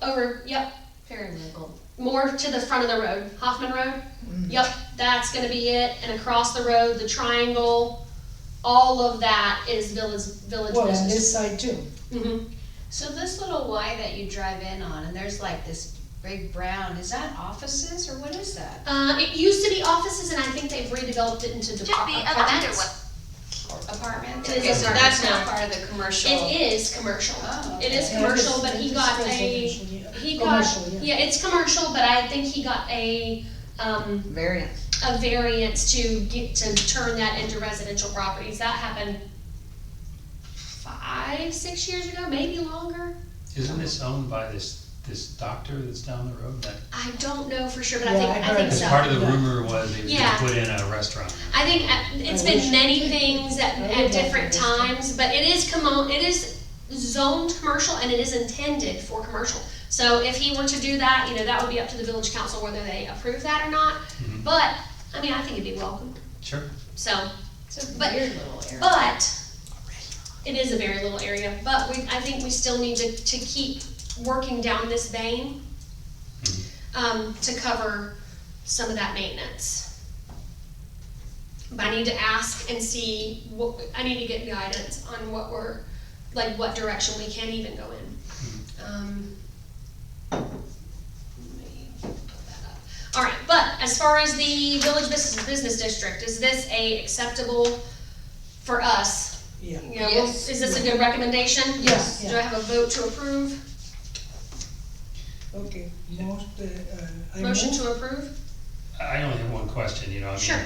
over, yep, more to the front of the road, Hoffman Road. Mm. Yep, that's gonna be it, and across the road, the triangle, all of that is village, village Well, on business. this side too. Mhm. So this little Y that you drive in on, and there's like this big brown, is that offices or what is that? Uh, it used to be offices, and I think they've redeveloped it into Should be department. up under what? Apartments? It is Okay, so apartments that's now. not part of the commercial. It is commercial. Oh, It is okay. commercial, but he got a, he got, Commercial, yeah. yeah, it's commercial, but I think he got a, um, variance. a variance to get, to turn that into residential properties. That happened five, six years ago, maybe longer. Isn't this owned by this, this doctor that's down the road? That, I don't know for sure, but I Yeah, think, I I heard think that. because so. part of the Yeah. rumor was they were Yeah. gonna put in a restaurant. I think uh, it's I been wish. many things at, I at would like different to visit. times, but it is commo, it is zoned commercial and it is intended for commercial. So if he were to do that, you know, that would be up to the village council whether they approve that or not, Mhm. but, I mean, I think it'd be welcome, Sure. so, It's a but- weird little area. but it is a very little area, but we, I think we still need to, to keep working down this vein Mhm. um, to cover some of that maintenance. But I need to ask and see what, I need to get guidance on what we're, like what direction we can even go in. Um, let me pull that up. All right, but as far as the village business, business district, is this a acceptable for us? Yeah. You know, Yes. Is this a good recommendation? Yes. Do I have a vote to approve? Okay, most, uh, uh, I move. Motion to approve? I I only have one question, you know, I mean. Sure.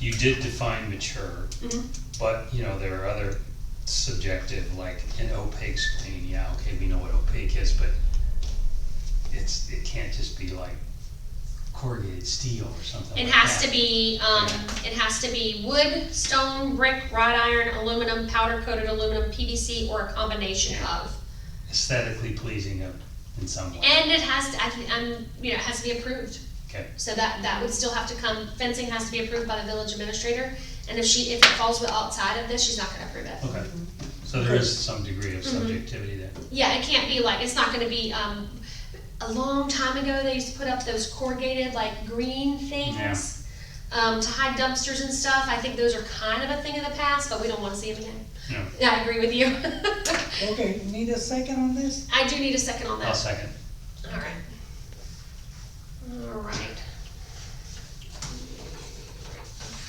You did define mature, Mhm. but, you know, there are other subjective, like an opaque screen, yeah, okay, we know what opaque is, but it's, it can't just be like corrugated steel or something It like has that. to be, um, it has to be wood, stone, brick, wrought iron, aluminum, powder coated aluminum, PVC, or a combination of. Aesthetically pleasing of- in some way. And it has to, I think, um, you know, it has to be approved. Okay. So that, that would still have to come, fencing has to be approved by the village administrator, and if she, if it falls outside of this, she's not gonna approve it. Okay, Mm-hmm. so there is some degree of Mhm. subjectivity there. Yeah, it can't be like, it's not gonna be, um, a long time ago, they used to put up those corrugated, like, green things, um, to hide dumpsters and stuff, I think those are kind of a thing of the past, but we don't wanna see them again. No. Yeah, I agree with you. Okay, need a second on this? I do need a second on that. I'll second. Alright. Alright.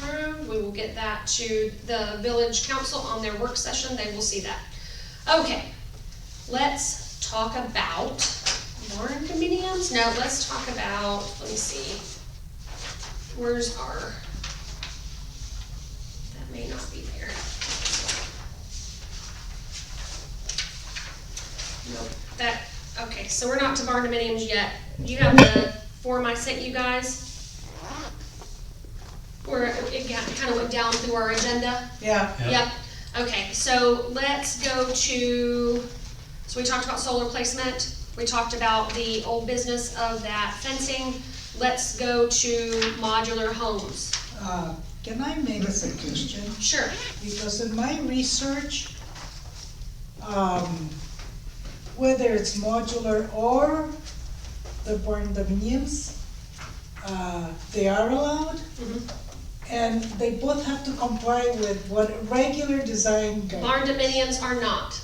Approved, we will get that to the village council on their work session, they will see that. Okay, let's talk about barn dominiums, no, let's talk about, let me see. Where's our? That may not be there. Nope, that, okay, so we're not to barn dominiums yet. You have the form I sent you guys? Where it got, kinda went down through our agenda? Yeah, Yep. Yep, okay, so let's go to, so we talked about solar placement, we talked about the old business of that fencing. Let's go to modular homes. uh, can I make a suggestion? Sure, Because in my research, um, whether it's modular or the barn dominiums, uh, they are allowed. Mhm. And they both have to comply with what regular design guidelines. barn dominiums are not,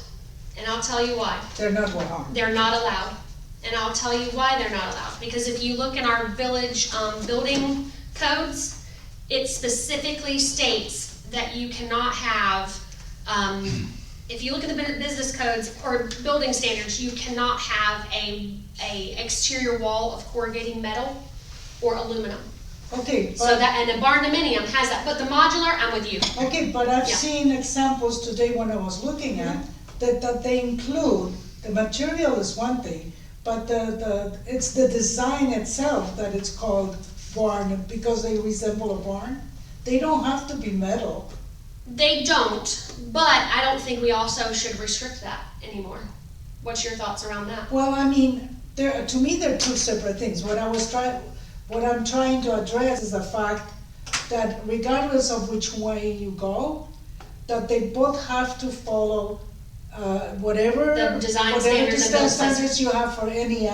and I'll tell you why. They're not allowed. they're not allowed. And I'll tell you why they're not allowed, because if you look in our village, um, building codes, it specifically states that you cannot have, um, if you look at the bu- business codes or building standards, you cannot have a, a exterior wall of corrugating metal or aluminum. Okay, So but, that, and a barn dominium has that, but the modular, I'm with you. okay, but I've Yeah. seen examples today when I was looking at, that, that they include, the material is one thing, but the, the, it's the design itself that it's called barn, because they resemble a barn. They don't have to be metal. They don't, but I don't think we also should restrict that anymore. What's your thoughts around that? Well, I mean, there, to me, they're two separate things. What I was trying, what I'm trying to address is the fact that regardless of which way you go, that they both have to follow, uh, whatever. The design whatever standards and design those- standards you have for any